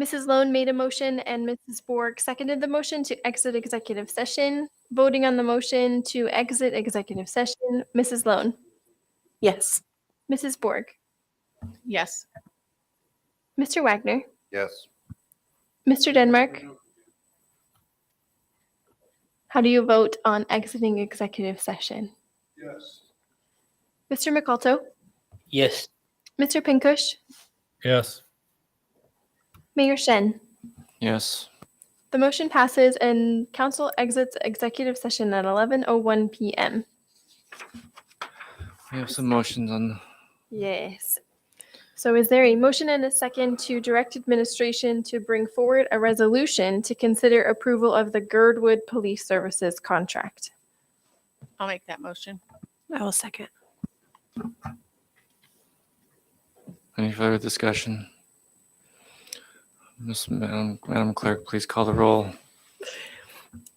Mrs. Lone made a motion and Mrs. Borg seconded the motion to exit executive session. Voting on the motion to exit executive session, Mrs. Lone, Yes. Mrs. Borg, Yes. Mr. Wagner, Yes. Mr. Denmark. How do you vote on exiting executive session? Yes. Mr. McAlto, Yes. Mr. Pinkush, Yes. Mayor Shen. Yes. The motion passes and council exits executive session at 11:01 p.m. We have some motions on. Yes. So is there a motion and a second to direct administration to bring forward a resolution to consider approval of the Girdwood Police Services contract? I'll make that motion. I will second. Any further discussion? Miss Madam, Madam Clerk, please call the roll.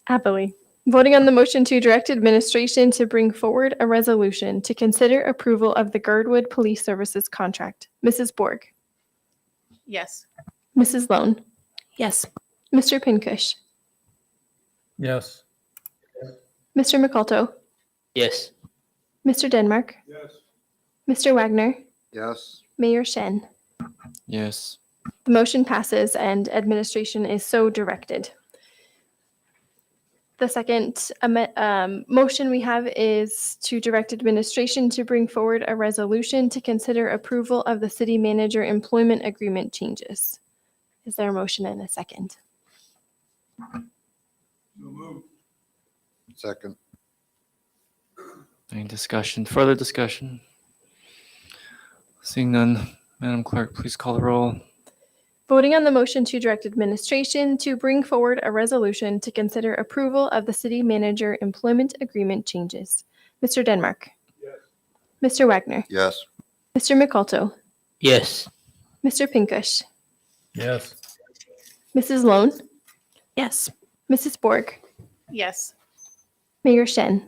Happily. Voting on the motion to direct administration to bring forward a resolution to consider approval of the Girdwood Police Services contract. Mrs. Borg, Yes. Mrs. Lone, Yes. Mr. Pincush, Yes. Mr. McAlto, Yes. Mr. Denmark, Yes. Mr. Wagner, Yes. Mayor Shen. Yes. The motion passes and administration is so directed. The second ame- um, motion we have is to direct administration to bring forward a resolution to consider approval of the city manager employment agreement changes. Is there a motion and a second? Second. Any discussion, further discussion? Seeing none, Madam Clerk, please call the roll. Voting on the motion to direct administration to bring forward a resolution to consider approval of the city manager employment agreement changes. Mr. Denmark. Mr. Wagner. Yes. Mr. McAlto. Yes. Mr. Pinkush, Yes. Mrs. Lone, Yes. Mrs. Borg, Yes. Mayor Shen.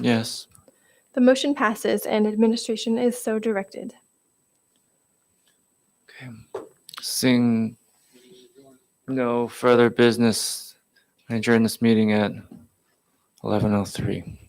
Yes. The motion passes and administration is so directed. Okay. Seeing no further business, I adjourn this meeting at 11:03.